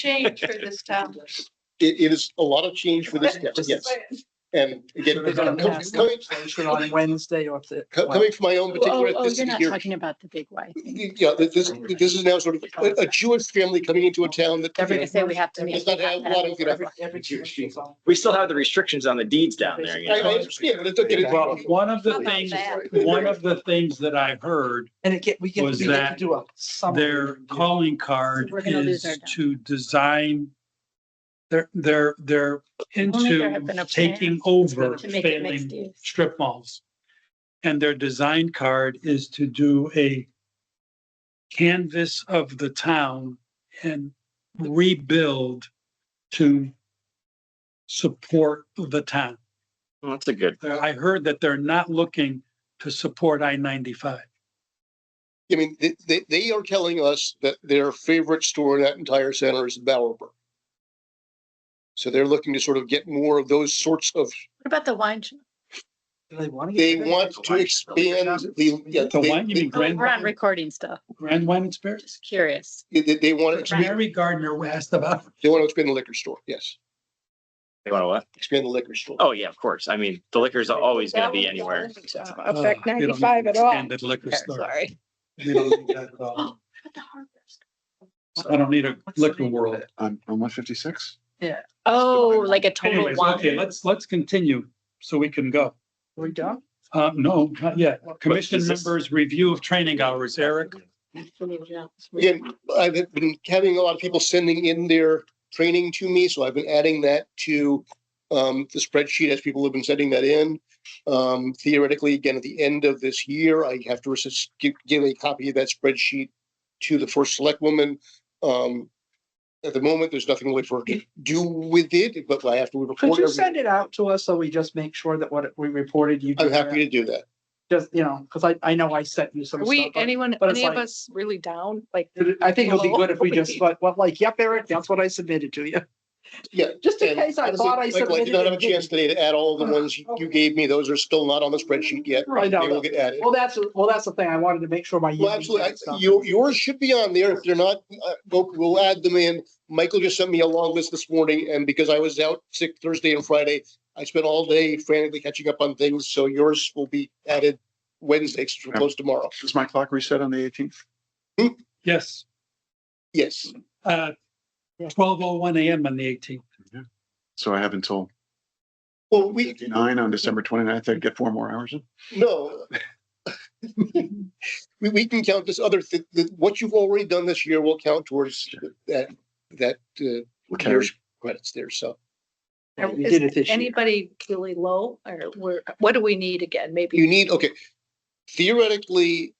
change for this town. It, it is a lot of change for this, town, yes, and again, So they're gonna com- pass coming, legislation on Wednesday or th- co- coming from my own Oh, particular, oh, this you're is not here. talking about the big way. Yeah, this, this- this is now sort of a- a Jewish family coming into a town that. They're gonna say we have to. Does make not have a lot of, you know, Every- every commercial's on- We still have the restrictions on the deeds down there. you I, I know? understand, but it's okay. Well, one of the Not things, bad. one of the things that I heard, And it get, we get, Was we get to that do a summary. their calling card We're gonna lose is our job. to design. They're, they're, they're Only there have been into a plan taking over To make it mixed failing use. strip malls. And their design card is to do a canvas of the town and rebuild to support the town. Well, That's a good. I heard that they're not looking to support I ninety-five. I mean, they- they, they are telling us that their favorite store in that entire center is Bowerbrook. So they're looking to sort of get more of those sorts of, What about the wine? oh, shop? Do They want to. they want to expand the. yeah, The wine, you they- mean Oh, We're on Grand, recording stuff. Grand Wine and Spirits? Just curious. They, they- they want Uh, to, expand- Mary Gardner asked about, uh, they want to expand the liquor store, yes, They want to what? expand the liquor store. Oh, yeah, of course. I mean, the liquor's always gonna be anywhere. affect 95 at all. Extended liquor store. Sorry. you know, you got, uh, Oh, what about the Harvest? I don't need a liquor world. on, on one fifty-six? Oh, like a total Anyways, okay, wine. let's, let's continue so we can go. We done? Uh, no, not yet. Commission is this- members review of training hours, Eric. Again, I've been having a lot of people sending in their training to me, so I've been adding that to um, the spreadsheet as people have been sending that in. Um, theoretically, again, at the end of this year, I have to resist, give, give a copy of that spreadsheet to the first select woman. Um, at the moment, there's nothing really for her to do with it, but I have to Could report. you every- send it out to us so we just make sure that what we reported you? I'm did happy to do that. Just, you know, because I, I know I sent you some Are stuff. we, but- anyone, but it's any of like- us really down? Like, I think it'll be good if we Hello? just, but, well, like, yep, Eric, that's what I submitted to you. Yeah, Just in And case I honestly, thought I Michael, I did not have a chance submitted. today it. to add all the ones you gave me. Those are still not on the spreadsheet yet. Right, They Mm-hmm. no, will no. get added. Well, that's, well, that's the thing. I wanted to make sure my. Well, yearly absolutely. tax stuff- I- Your, yours should be on there. If they're not, uh, we'll, we'll add them in. Michael just sent me a long list this morning and because I was out sick Thursday and Friday, I spent all day frantically catching up on things. So yours will be added Wednesday, since we're close tomorrow. Does my clock reset on the eighteenth? Yes, Yes. uh, Yeah. twelve oh one AM on the eighteenth. So I have until Well, we, fifty-nine on December 29th. I'd get four more hours in. no. We, we can count this other, thi- the- what you've already done this year will count towards that, that, uh, We'll carry- year's credits there. So We is did it this year. anybody really low or where, what do we need again? you Maybe need, okay, theoretically,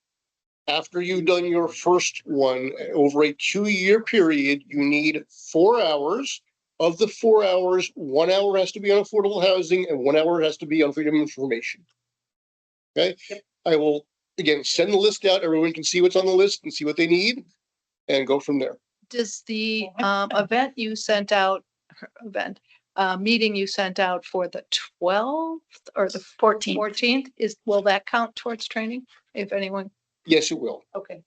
after you've done your first one, over a two-year period, you need four hours. Of the four hours, one hour has to be on affordable housing and one hour has to be on freedom of information. Okay, I will, again, send the list out. Everyone can see what's on the list and see what they need and go from there. does the um event you sent out, event, uh, meeting you sent out for the twelfth or the Fourteen. fourteenth is, will that count towards training? If anyone, Yes, it will. okay.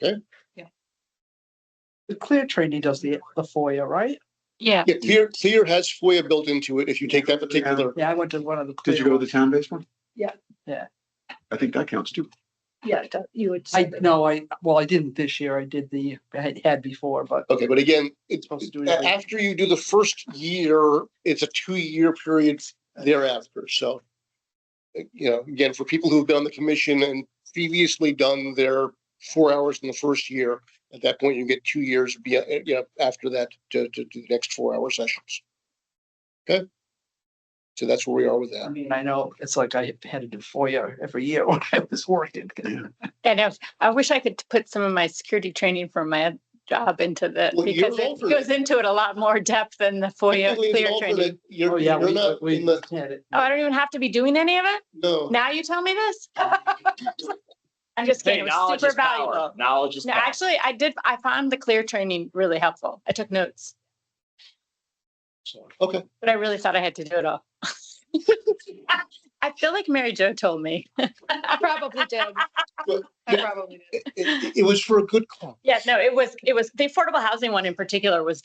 The clear training does the, the FOIA, right? Yeah. Yeah, Clear, Clear has FOIA built into it if you take that particular. Yeah, I went to one of the. Did you go to the town-based one? Yeah. Yeah. I think that counts too. Yeah, that- you would. I, send it. no, I, well, I didn't this year. I did the, I had- had before, but Okay, but again, it's supposed to do it A- every- After you do the first year, it's a two-year period thereafter, so. uh, You know, again, for people who've been on the commission and previously done their four hours in the first year, at that point, you get two years, be, uh, you know, after that, to, to do the next four-hour sessions. Okay? So that's where we are with I that. mean, I know it's like I had to do FOIA every year when I was working. And I, was- I wish I could put some of my security training from my job into the, Well, you're because it alternate. goes into it a lot more depth than the FOIA Technically, it's Oh, clear all for training. the- You're, Oh, yeah, you're we, not we in the, had it. Oh, I don't even have to be doing any of it? no. Now you tell me this? I'm just Hey, kidding. It was knowledge super is power. valuable. Knowledge is No, power. actually, I did, I found the clear training really helpful. I took notes, Okay, but I really thought I had to do it all. I feel like Mary Jo told me. I probably did. Well, I probably did. it, it- it was for a good cause. Yeah, no, it was, it was, the affordable housing one in particular was